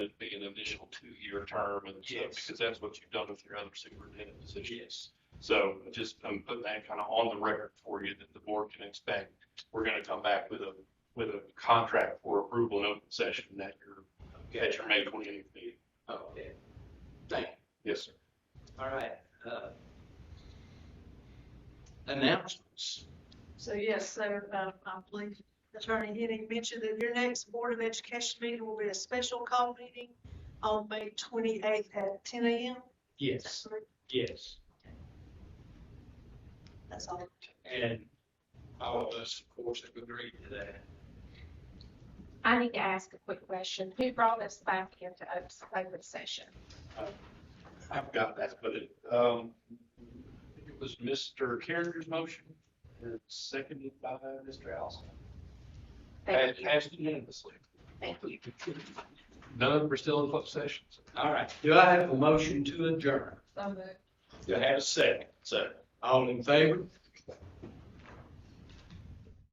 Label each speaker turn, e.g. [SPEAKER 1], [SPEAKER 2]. [SPEAKER 1] additional two-year term and so,
[SPEAKER 2] Yes.
[SPEAKER 1] because that's what you've done with your other superintendent position.
[SPEAKER 2] Yes.
[SPEAKER 1] So just, I'm putting that kind of on the record for you that the board can expect. We're going to come back with a, with a contract for approval in open session that you're, at your May 28th meeting.
[SPEAKER 2] Okay. Thank you.
[SPEAKER 1] Yes, sir.
[SPEAKER 2] All right. uh, Announcements.
[SPEAKER 3] So yes, so uh, I believe Attorney Henning mentioned that your next Board of Education meeting will be a special call meeting on May twenty-eighth at ten AM. Is that correct?
[SPEAKER 2] Yes.
[SPEAKER 3] That's all.
[SPEAKER 2] And all of us, of course, have agreed to that.
[SPEAKER 4] I need to ask a quick question. Who brought us back into op- open session?
[SPEAKER 1] I've got that, but it, um, I think it was Mr. Carriger's motion, and seconded by Mr. Allison.
[SPEAKER 4] Thank
[SPEAKER 1] Passed-
[SPEAKER 4] you.
[SPEAKER 1] Passed unanimously.
[SPEAKER 4] Thank you.
[SPEAKER 1] None, we're still in closed session.
[SPEAKER 2] All right. Do I have a motion to adjourn?
[SPEAKER 4] So moved.
[SPEAKER 2] Do I have a second? Second. All in favor?